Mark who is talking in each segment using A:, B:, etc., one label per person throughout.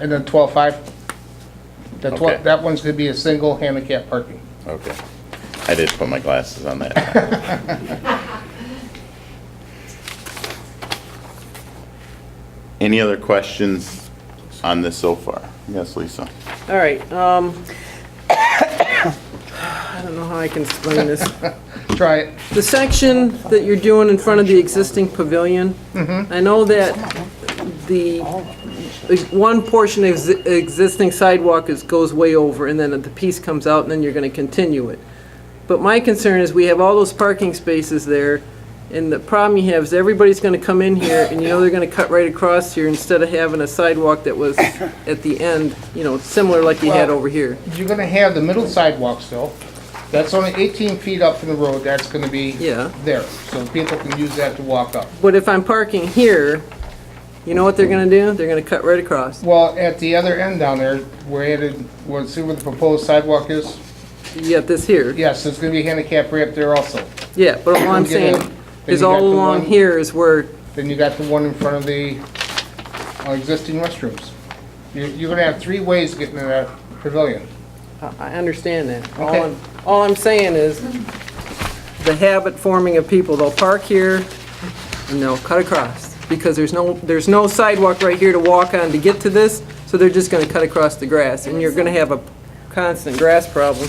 A: And then twelve-five. The
B: Okay.
A: twelve, that one's gonna be a single handicap parking.
B: Okay. I did put my glasses on that. Any other questions on this so far? Yes, Lisa?
C: All right, um, I don't know how I can explain this.
A: Try it.
C: The section that you're doing in front of the existing pavilion, I know that the, one portion of the existing sidewalk is, goes way over, and then the piece comes out, and then you're gonna continue it. But my concern is, we have all those parking spaces there, and the problem you have is everybody's gonna come in here, and you know they're gonna cut right across here, instead of having a sidewalk that was at the end, you know, similar like you had
A: Well-
C: over here.
A: You're gonna have the middle sidewalk still. That's only eighteen feet up from the road, that's gonna be
C: Yeah.
A: there, so people can use that to walk up.
C: But if I'm parking here, you know what they're gonna do? They're gonna cut right across.
A: Well, at the other end down there, where it, where, see where the proposed sidewalk is?
C: You got this here.
A: Yes, there's gonna be handicap ramp there also.
C: Yeah, but all I'm
A: Get in.
C: saying
A: Then
C: is
A: you got
C: all
A: the
C: along
A: one-
C: here is where,
A: Then you got the one in front of the uh, existing restrooms. You're, you're gonna have three ways getting to that pavilion.
C: I I understand that. All
A: Okay.
C: I'm, all I'm saying is the habit forming of people, they'll park here and they'll cut across. Because there's no, there's no sidewalk right here to walk on to get to this, so they're just gonna cut across the grass. And you're gonna have a constant grass problem.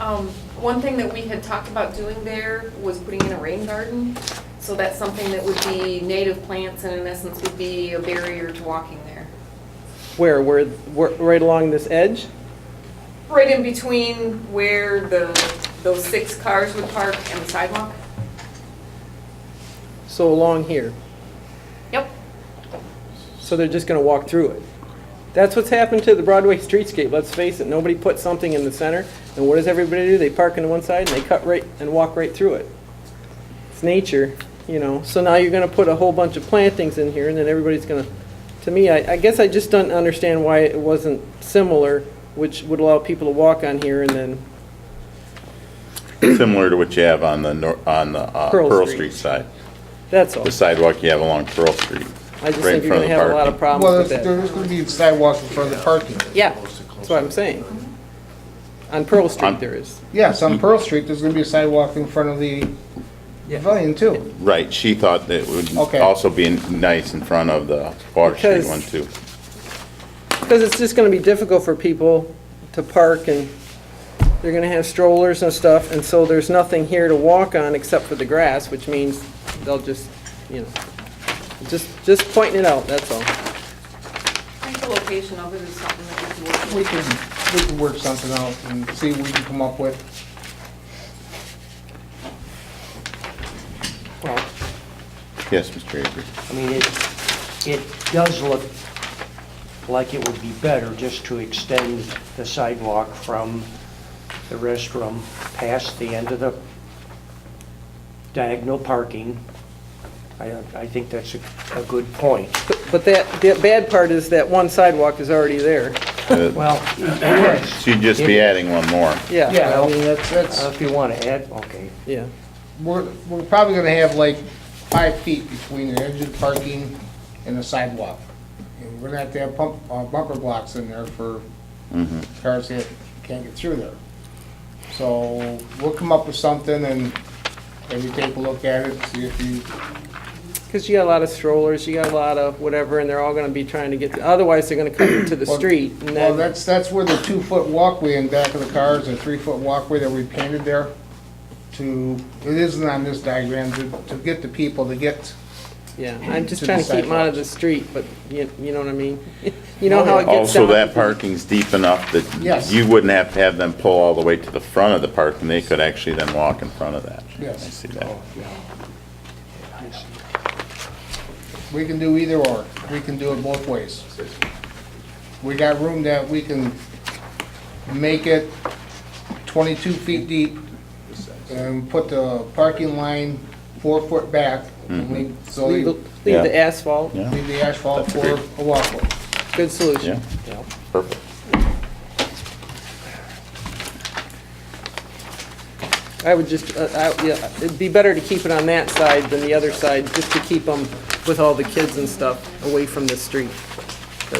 D: Um, one thing that we had talked about doing there was putting in a rain garden. So that's something that would be native plants and in essence would be a barrier to walking there.
C: Where, where, where- right along this edge?
D: Right in between where the, those six cars would park and the sidewalk.
C: So along here.
D: Yep.
C: so they're just gonna walk through it. That's what's happened to the Broadway streetscape, let's face it, nobody put something in the center, and what does everybody do? They park into one side and they cut right, and walk right through it. It's nature, you know, so now you're gonna put a whole bunch of plantings in here, and then everybody's gonna, to me, I, I guess I just don't understand why it wasn't similar, which would allow people to walk on here and then,
B: Similar to what you have on the, nor- on the uh,
C: Pearl
B: Pearl Street
C: Street.
B: side,
C: that's all.
B: the sidewalk you have along Pearl Street.
C: I just
B: right in
C: think you're
B: front
C: gonna
B: of the
C: have a lot of
B: parking.
A: Well,
C: problems with
A: there's,
C: that.
A: there's gonna be sidewalk in front of the parking.
C: Yeah, that's what I'm saying. On Pearl Street
B: On-
C: there is.
A: Yes, on Pearl Street, there's gonna be a sidewalk in front of the
C: Yeah.
A: pavilion too.
B: Right, she thought that it would
A: Okay.
B: also be nice in front of the Water Street
C: Because-
B: one too.
C: Because it's just gonna be difficult for people to park and they're gonna have strollers and stuff, and so there's nothing here to walk on except for the grass, which means they'll just, you know, just, just pointing it out, that's all.
D: I think the location of it is something that we could work with.
A: We can, we can work something out and see what we can come up with.
E: Well,
B: Yes, Mr. Avery.
E: I mean, it, it does look like it would be better just to extend the sidewalk from the restroom past the end of the diagonal parking. I, I think that's a, a good point.
C: But- But that, the bad part is that one sidewalk is already there,
B: Uh,
E: Well, yes,
B: She'd just be adding one more.
C: yeah.
A: Yeah, I
E: Well-
A: mean, that's, that's,
E: if you want to add, okay.
C: Yeah,
A: we're, we're probably gonna have like five feet between the edge of the parking and the sidewalk. And we're gonna have to have pump, uh, bumper blocks in there for cars that can't get through there. So we'll come up with something and maybe take a look at it, see if you,
C: because you got a lot of strollers, you got a lot of whatever, and they're all gonna be trying to get, otherwise they're gonna come into the
A: Well-
C: street, and
A: well,
C: then,
A: that's, that's where the two-foot walkway in back of the cars, the three-foot walkway that we painted there to, it isn't on this diagram, to, to get the people to get
C: yeah. I'm just
A: to
C: trying
A: the
C: to keep them out of the street, but you, you know what I mean? You know how it gets down.
B: Also, that parking's deep enough that
A: Yes.
B: you wouldn't have to have them pull all the way to the front of the park, and they could actually then walk in front of that.
A: Yes.
B: I see that.
A: We can do either or. We can do it both ways. We got room that we can make it 22 feet deep and put the parking line four foot back. and leave- So
C: Leave the
A: you
C: leave the asphalt,
B: Yeah,
A: leave the asphalt for
B: That's
A: a walkway.
B: yeah,
C: good solution.
B: perfect.
C: I would just, uh, I- yeah, it'd be better to keep it on that side than the other side, just to keep them with all the kids and stuff away from the street.